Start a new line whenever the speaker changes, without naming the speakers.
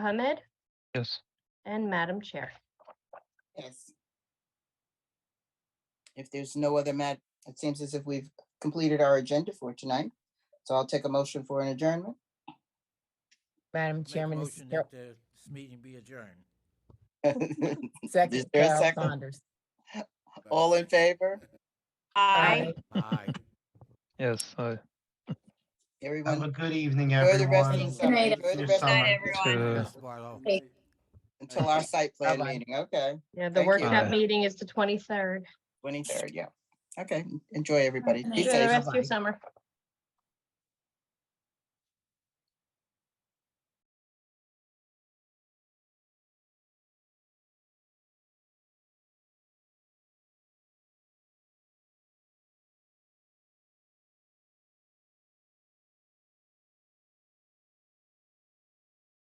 Ahmed
Yes.
and Madam Chair.
Yes. If there's no other mat, it seems as if we've completed our agenda for tonight. So I'll take a motion for an adjournment.
Madam
Make a
Chairman, this is
motion
Carol-
that the meeting be adjourned.
second
Is there a
Carol
second?
Saunders.
All in favor?
Aye.
Aye.
Yes. I
Have a
Everyone,
good evening,
enjoy the rest of
everyone.
the summer,
night,
enjoy the
Your
rest of
Night,
summer.
everyone.
Uh,
Ms. Barlow.
Hey.
until our site plan
Bye-bye.
meeting, okay,
Yeah, the
Thank you.
workshop
Aye.
meeting is the twenty-third.
twenty-third, yeah. Okay, enjoy everybody. Be
Enjoy
Enjoy the
safe.
rest of your summer.